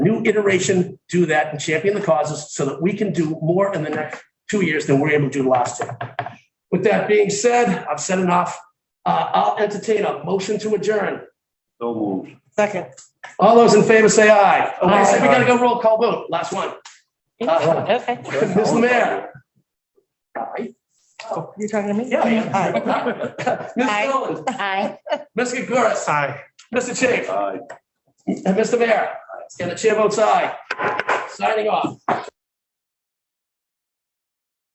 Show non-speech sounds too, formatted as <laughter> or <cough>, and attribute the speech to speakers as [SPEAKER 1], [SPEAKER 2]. [SPEAKER 1] new iteration, do that and champion the causes so that we can do more in the next two years than we we're able to do last year. With that being said, I've said enough. Uh, I'll entertain a motion to adjourn.
[SPEAKER 2] So moved.
[SPEAKER 3] Second.
[SPEAKER 1] All those in favor say aye. Oh, wait, we
[SPEAKER 2] Aye.
[SPEAKER 1] gotta go roll call vote. Last one. Uh,
[SPEAKER 3] Okay.
[SPEAKER 1] Mr. Mayor. Aye.
[SPEAKER 3] You're talking to me?
[SPEAKER 1] Yeah,
[SPEAKER 3] Aye.
[SPEAKER 1] <laughs> yeah. Ms.
[SPEAKER 3] Aye.
[SPEAKER 1] Nolan,
[SPEAKER 3] Aye.
[SPEAKER 1] Ms. Gagoras. Aye. Mr. Chafe,
[SPEAKER 2] Aye.
[SPEAKER 1] and Mr. Mayor, and the chair votes aye. Signing off.